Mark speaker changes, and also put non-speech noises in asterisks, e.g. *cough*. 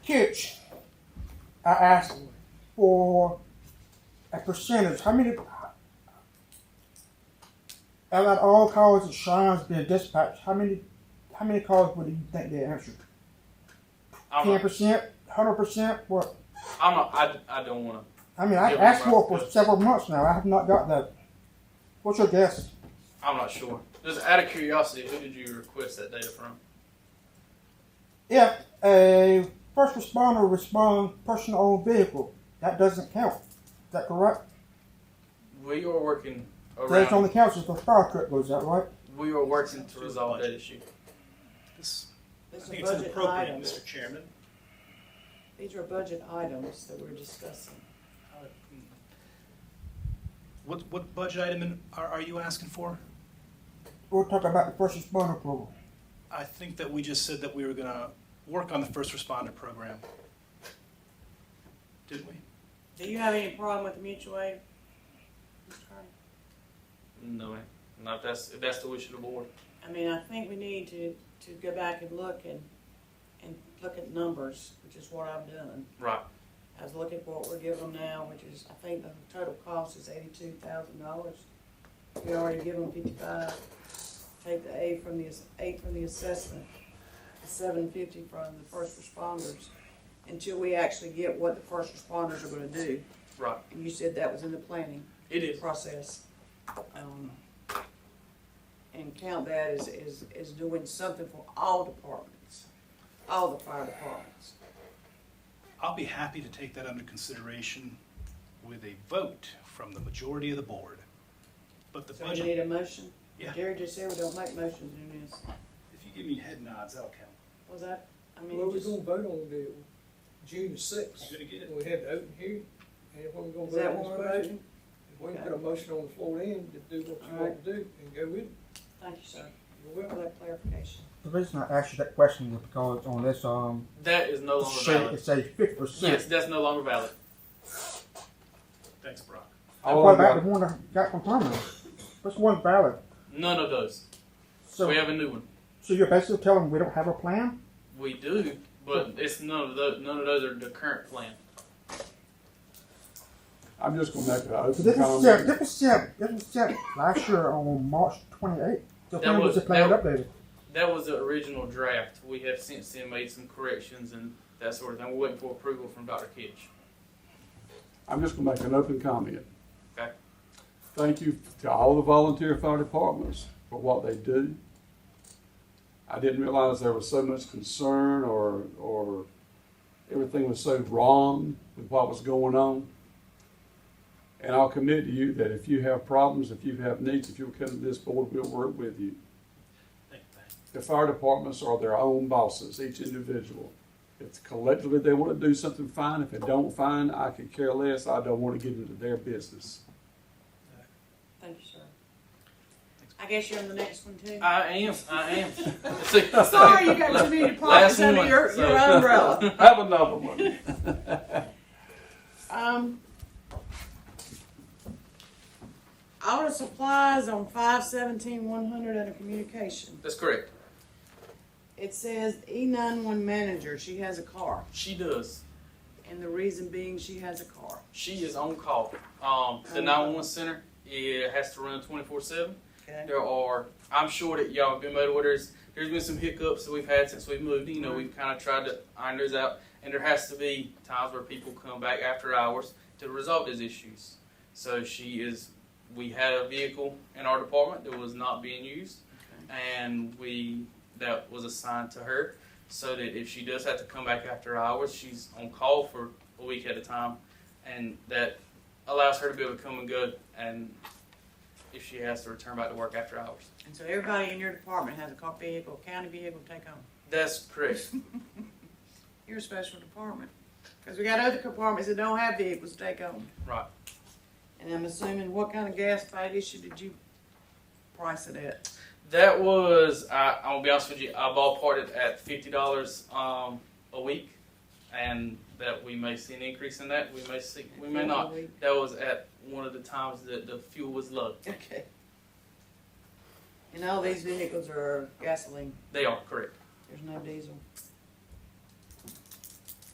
Speaker 1: pitch, I asked for a percentage. How many? Out of all calls to Sean's being dispatched, how many? How many calls would you think they answered?
Speaker 2: I'm
Speaker 1: Ten
Speaker 2: not,
Speaker 1: percent, hundred percent. What?
Speaker 2: I'm not, I, I don't want to.
Speaker 1: I mean, I
Speaker 2: Yeah,
Speaker 1: asked for
Speaker 2: well,
Speaker 1: it for
Speaker 2: that's-
Speaker 1: several months now. I have not got that. What's your guess?
Speaker 2: I'm not sure. Just out of curiosity, who did you request that data from?
Speaker 1: If a first responder responds personal owned vehicle, that doesn't count. Is that correct?
Speaker 2: We are working
Speaker 1: That
Speaker 2: around.
Speaker 1: only counts if the fire truck goes out, right?
Speaker 2: We are working to resolve that issue.
Speaker 3: This, I
Speaker 4: These
Speaker 3: think
Speaker 4: are
Speaker 3: it's
Speaker 4: budget
Speaker 3: inappropriate,
Speaker 4: items.
Speaker 3: Mr. Chairman.
Speaker 4: These are budget items that we're discussing.
Speaker 3: What, what budget item in- are, are you asking for?
Speaker 1: We'll talk about the first responder program.
Speaker 3: I think that we just said that we were gonna work on the first responder program. Didn't we?
Speaker 4: Do you have any problem with the mutual aid? Mr. Carter?
Speaker 2: No, man. Not if that's, if that's the wish of the board.
Speaker 4: I mean, I think we need to, to go back and look and, and look at numbers, which is what I've done.
Speaker 2: Right.
Speaker 4: I was looking for what we're giving them now, which is, I think the total cost is eighty-two thousand dollars. We already give them fifty-five, take the eight from the, ass- eight from the assessment, the seven fifty from the first responders, until we actually get what the first responders are gonna do.
Speaker 2: Right.
Speaker 4: And you said that was in the planning
Speaker 2: It is.
Speaker 4: process. um, And count that as, as, as doing something for all departments, all the fire departments.
Speaker 3: I'll be happy to take that under consideration with a vote from the majority of the board. But the
Speaker 4: So we
Speaker 3: budget,
Speaker 4: need a motion?
Speaker 3: Yeah.
Speaker 4: Gary just said we don't make motions in this.
Speaker 3: if you give me head nods, that'll count.
Speaker 4: Was that, I mean,
Speaker 5: Well,
Speaker 4: you
Speaker 5: we're
Speaker 4: just,
Speaker 5: gonna vote on the June sixth.
Speaker 3: You gonna get it?
Speaker 5: We have the open hearing, and when we're
Speaker 4: is
Speaker 5: gonna
Speaker 4: that
Speaker 5: vote
Speaker 4: what
Speaker 5: on
Speaker 4: we're
Speaker 5: this budget.
Speaker 4: voting?
Speaker 5: If we can put a motion on the floor then to do what you want to do and go with it,
Speaker 4: Thank you, sir,
Speaker 5: you
Speaker 4: for that clarification.
Speaker 1: The reason I asked you that question was because on this um
Speaker 2: That is no longer
Speaker 1: sheet
Speaker 2: valid.
Speaker 1: it says fifty
Speaker 2: Yes,
Speaker 1: percent.
Speaker 2: that's no longer valid.
Speaker 3: Thanks, Brock.
Speaker 6: All
Speaker 1: what
Speaker 6: I've
Speaker 1: about
Speaker 6: got,
Speaker 1: the one I got from Tommy? That's one valid.
Speaker 2: None of those.
Speaker 1: So
Speaker 2: we have a new one.
Speaker 1: so you're basically telling me we don't have a plan?
Speaker 2: We do, but it's none of those. None of those are the current plan.
Speaker 6: I'm just gonna make an
Speaker 1: So
Speaker 6: open
Speaker 1: this was set
Speaker 6: comment.
Speaker 1: this was set this was set last year on March twenty eighth. The
Speaker 2: That
Speaker 1: plan was
Speaker 2: was-
Speaker 1: the plan
Speaker 2: that-
Speaker 1: updated.
Speaker 2: That was the original draft. We have since then made some corrections and that sort of thing. We're waiting for approval from Dr. Kitch.
Speaker 6: I'm just gonna make an open comment.
Speaker 2: Okay.
Speaker 6: Thank you to all the volunteer fire departments for what they do. I didn't realize there was so much concern or, or everything was so wrong with what was going on. And I'll commit to you that if you have problems, if you have needs, if you'll come to this board, we'll work with you.
Speaker 3: Thank, thank.
Speaker 6: The fire departments are their own bosses, each individual. If collectively they want to do something, fine. If they don't, fine. I could care less. I don't want to get into their business.
Speaker 4: Thank you, sir. I guess you're on the next one too.
Speaker 2: I am. I *laughs* am.
Speaker 4: *laughs* Sorry, you got too many
Speaker 2: Last
Speaker 4: departments under
Speaker 2: one,
Speaker 4: your,
Speaker 2: so-
Speaker 4: your umbrella.
Speaker 6: Have another one.
Speaker 4: *laughs* Um, audit supplies on five seventeen one hundred under communication.
Speaker 2: That's correct.
Speaker 4: It says E nine one manager, she has a car,
Speaker 2: She does.
Speaker 4: and the reason being she has a car.
Speaker 2: She is on call. Um, the
Speaker 4: Um,
Speaker 2: 911 center it has to run 24 7.
Speaker 4: Okay.
Speaker 2: There are, I'm sure that y'all have been made orders. There's been some hiccups that we've had since we've moved. You know, we've kind of tried to iron those out. And there has to be times where people come back after hours to resolve those issues. So she is, we had a vehicle in our department that was not being used. And we, that was assigned to her. So that if she does have to come back after hours, she's on call for a week at a time. And that allows her to be able to come and go and if she has to return back to work after hours.
Speaker 4: And so everybody in your department has a car vehicle, county vehicle to take home.
Speaker 2: That's correct.
Speaker 4: You're a special department, because we got other compartments that don't have vehicles to take home.
Speaker 2: Right.
Speaker 4: And I'm assuming what kind of gas paid issue did you price it at?
Speaker 2: That was I, I'm gonna be honest with you. I ballparked it at fifty dollars um, a week, and that we may see an increase in that. We may see, we may not. That was at one of the times that the fuel was low.
Speaker 4: *laughs* Okay. And all these vehicles are gasoline,
Speaker 2: They are correct.
Speaker 4: there's no diesel.